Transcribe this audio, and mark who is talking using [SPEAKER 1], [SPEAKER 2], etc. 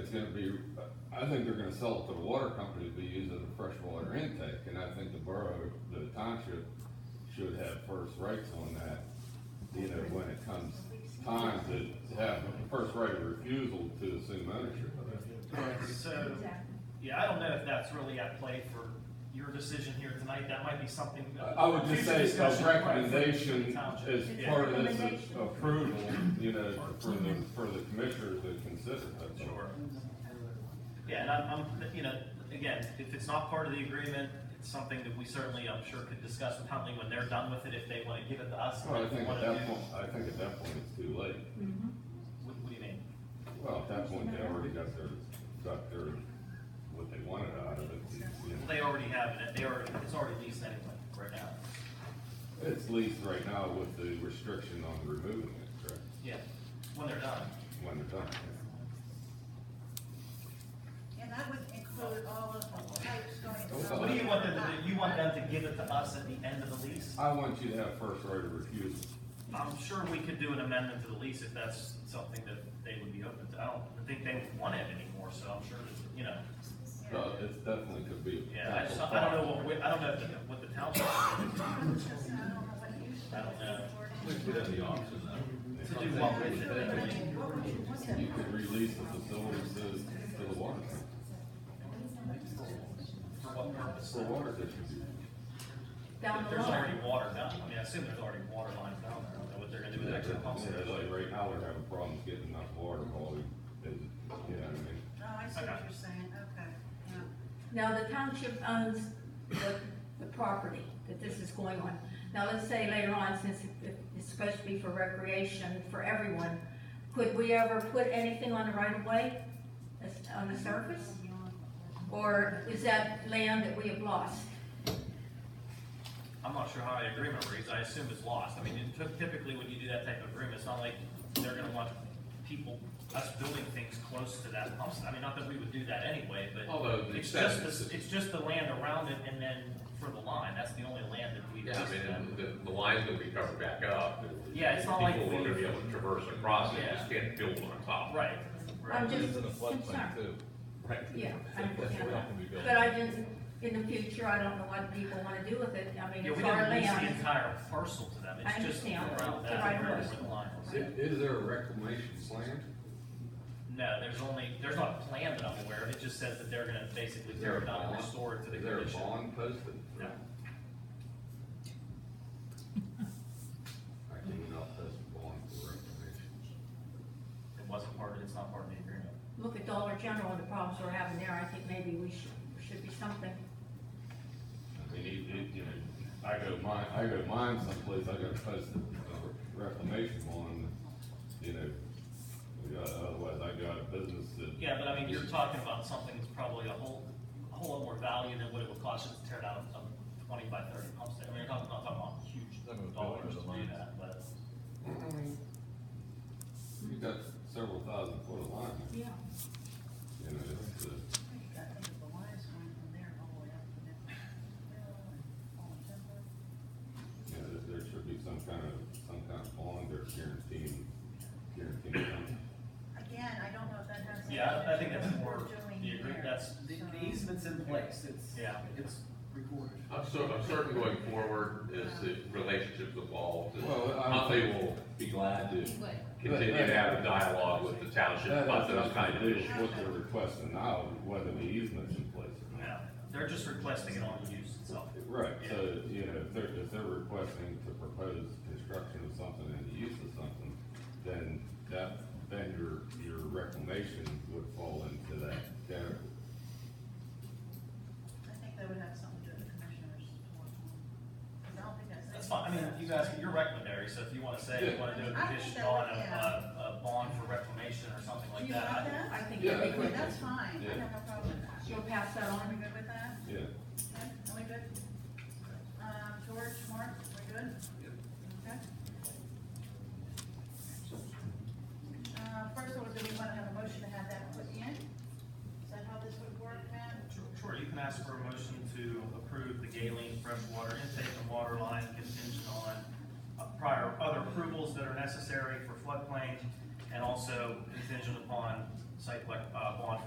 [SPEAKER 1] it's gonna be, I think they're gonna sell it to the water company to be used as a freshwater intake, and I think the borough, the township should have first rights on that, you know, when it comes time to have the first right of refusal to assume ownership of it.
[SPEAKER 2] Correct, so,
[SPEAKER 3] Exactly.
[SPEAKER 2] yeah, I don't know if that's really at play for your decision here tonight, that might be something.
[SPEAKER 1] I I would just
[SPEAKER 2] future
[SPEAKER 1] say
[SPEAKER 2] discussion,
[SPEAKER 1] a
[SPEAKER 2] right, for
[SPEAKER 1] recommendation
[SPEAKER 2] the township.
[SPEAKER 1] as
[SPEAKER 3] It's a
[SPEAKER 1] part of this
[SPEAKER 3] recommendation.
[SPEAKER 1] approval, you know, for the, for the commissioners to consider that.
[SPEAKER 2] Sure. Yeah, and I'm, I'm, you know, again, if it's not part of the agreement, it's something that we certainly, I'm sure, could discuss with Huntley when they're done with it, if they wanna give it to us.
[SPEAKER 1] Well, I
[SPEAKER 2] if we
[SPEAKER 1] think at
[SPEAKER 2] wanna
[SPEAKER 1] that
[SPEAKER 2] do-
[SPEAKER 1] point, I think at that point it's too late.
[SPEAKER 2] What, what do you mean?
[SPEAKER 1] Well, at that point, they already got their, got their, what they wanted out of it. you know.
[SPEAKER 2] They already have it, they already, it's already leased anyway, right now.
[SPEAKER 1] It's leased right now with the restriction on removing it, correct,
[SPEAKER 2] Yeah, when they're done.
[SPEAKER 1] when they're done.
[SPEAKER 3] And that would include all of the pipes going.
[SPEAKER 1] Oh,
[SPEAKER 3] from-
[SPEAKER 2] What do you want them to do? You want them to give it to us at the end of the lease?
[SPEAKER 1] I want you to have first right of refusal.
[SPEAKER 2] I'm sure we could do an amendment to the lease if that's something that they would be open to. I don't think they would want it anymore, so I'm sure, that, you know.
[SPEAKER 1] So it's definitely could be. a
[SPEAKER 2] Yeah, I just, I don't know what, we- I don't know if- what the township, I don't know.
[SPEAKER 4] We could have the option though.
[SPEAKER 2] To do what with
[SPEAKER 3] Oh,
[SPEAKER 2] it?
[SPEAKER 1] You could release the facility to, to the water, company
[SPEAKER 2] For what purpose?
[SPEAKER 1] for water distribution.
[SPEAKER 5] Down the
[SPEAKER 2] There's
[SPEAKER 5] line.
[SPEAKER 2] already water down, I mean, I assume there's already water lines down there. I don't know what they're gonna do with extra pumps.
[SPEAKER 1] Yeah, like right now, we're having problems getting enough water, volume, is, you know what I mean?
[SPEAKER 3] Oh, I see what you're saying, okay, yeah.
[SPEAKER 5] Now, the township owns the, the property that this is going on. Now, let's say later on, since it- it's supposed to be for recreation for everyone, could we ever put anything on the right of way, as- on the surface? Or is that land that we have lost?
[SPEAKER 2] I'm not sure how the agreement reads, I assume it's lost. I mean, it took- typically when you do that type of agreement, it's not like they're gonna want people, us building things close to that pump station. I mean, not that we would do that anyway, but
[SPEAKER 4] Although the
[SPEAKER 2] it's just,
[SPEAKER 4] acceptance,
[SPEAKER 2] the- it's just the land around it and then for the line, that's the only land that we.
[SPEAKER 4] yeah, I mean, the, the line's gonna be covered back up. and
[SPEAKER 2] Yeah, it's not like
[SPEAKER 4] People are gonna be
[SPEAKER 2] we-
[SPEAKER 4] able to traverse across it,
[SPEAKER 2] Yeah.
[SPEAKER 4] just can't build on top.
[SPEAKER 2] Right,
[SPEAKER 5] I'm
[SPEAKER 2] right.
[SPEAKER 5] just
[SPEAKER 6] It's in a floodplain
[SPEAKER 5] concerned.
[SPEAKER 6] too.
[SPEAKER 4] Right.
[SPEAKER 5] Yeah, I understand
[SPEAKER 6] We're
[SPEAKER 5] that.
[SPEAKER 6] not gonna be building.
[SPEAKER 5] But I just, in the future, I don't know what people wanna do with it. I mean,
[SPEAKER 2] Yeah, we
[SPEAKER 5] it's our
[SPEAKER 2] didn't lease the
[SPEAKER 5] land.
[SPEAKER 2] entire parcel to them,
[SPEAKER 5] I
[SPEAKER 2] it's just
[SPEAKER 5] understand.
[SPEAKER 2] around
[SPEAKER 5] The right
[SPEAKER 2] that,
[SPEAKER 5] of
[SPEAKER 2] where
[SPEAKER 5] way.
[SPEAKER 2] the line
[SPEAKER 1] I-
[SPEAKER 2] was.
[SPEAKER 1] Is there a reclamation plan?
[SPEAKER 2] No, there's only, there's not a plan that I'm aware of, it just says that they're gonna basically
[SPEAKER 1] Is
[SPEAKER 2] tear
[SPEAKER 1] there
[SPEAKER 2] it
[SPEAKER 1] a
[SPEAKER 2] down and
[SPEAKER 1] bond?
[SPEAKER 2] restore it to the
[SPEAKER 1] Is there a
[SPEAKER 2] condition.
[SPEAKER 1] bond posted?
[SPEAKER 2] No.
[SPEAKER 1] I cannot post a bond for reclamation.
[SPEAKER 2] It wasn't part of, it's not part of the agreement.
[SPEAKER 5] Look at Dollar General and the problems we're having there. I think maybe we should, should be something.
[SPEAKER 1] I mean, you, you, you know, I go mine, I go mine someplace, I gotta post a reclamation bond, you know. you know, Otherwise, I go out of business to.
[SPEAKER 2] Yeah, but I mean, you're talking about something that's probably a whole, a whole lot more value than what it would cost you to tear down a twenty by thirty pump station. I mean, you're talking, not talking about
[SPEAKER 6] That would
[SPEAKER 2] huge
[SPEAKER 6] be
[SPEAKER 2] dollars
[SPEAKER 6] worth
[SPEAKER 2] to
[SPEAKER 6] the
[SPEAKER 2] do
[SPEAKER 6] money.
[SPEAKER 2] that, but.
[SPEAKER 1] You got several thousand foot of line,
[SPEAKER 5] Yeah.
[SPEAKER 1] you know, it's, uh,
[SPEAKER 3] I think the wires went from there all the way up to there.
[SPEAKER 1] you know, there- there should be some kind of, some kind of bond or guaranteeing, guaranteeing. something.
[SPEAKER 3] Again, I don't know if that has.
[SPEAKER 2] Yeah, I- I think that's
[SPEAKER 3] anything to do
[SPEAKER 2] more,
[SPEAKER 3] with what we're doing
[SPEAKER 2] the agree,
[SPEAKER 3] here.
[SPEAKER 2] that's,
[SPEAKER 7] The
[SPEAKER 3] So-
[SPEAKER 7] the easement's in place, it's,
[SPEAKER 2] Yeah.
[SPEAKER 7] it's recorded.
[SPEAKER 4] I'm cer- I'm certain going forward as the relationships evolve, and
[SPEAKER 1] Well, I-
[SPEAKER 4] Huntley will be glad to continue to have a dialogue with the township
[SPEAKER 1] That
[SPEAKER 4] about
[SPEAKER 1] has
[SPEAKER 4] those kind
[SPEAKER 1] nothing
[SPEAKER 4] of
[SPEAKER 1] to do
[SPEAKER 4] issues.
[SPEAKER 1] with what they're requesting now, whether the easement's in place or not.
[SPEAKER 2] no, they're just requesting it on use itself.
[SPEAKER 1] Right, so, you know, if they're, if they're requesting to propose construction of something and the use of something, then that, then your, your reclamation would fall into that category.
[SPEAKER 3] I think they would have something to do with the commissioners. Because I don't think that's.
[SPEAKER 2] That's fine, I mean, you guys, you're recommendary, so if you wanna say you wanna do a
[SPEAKER 3] I think
[SPEAKER 2] condition
[SPEAKER 3] that
[SPEAKER 2] on
[SPEAKER 3] would-
[SPEAKER 2] a,
[SPEAKER 3] yeah.
[SPEAKER 2] a, a bond for reclamation or something
[SPEAKER 3] Do
[SPEAKER 2] like
[SPEAKER 3] you want
[SPEAKER 2] that,
[SPEAKER 3] that?
[SPEAKER 5] I think
[SPEAKER 1] Yeah, I
[SPEAKER 5] that we
[SPEAKER 1] think-
[SPEAKER 5] would.
[SPEAKER 3] That's fine, I have no problem with that.
[SPEAKER 5] You'll pass that
[SPEAKER 3] Are we
[SPEAKER 5] on?
[SPEAKER 3] good with that?
[SPEAKER 1] Yeah,
[SPEAKER 3] Okay, Are we good? Um, George, Mark, we're good? Okay. Uh, first of all, do we wanna have a motion to have that put in? Is that how this would work, Matt?
[SPEAKER 2] Sure, Sure, you can ask for a motion to approve the Galen freshwater intake and water line contingent on uh, prior, other approvals that are necessary for floodplain, and also contingent upon site like, uh, bond for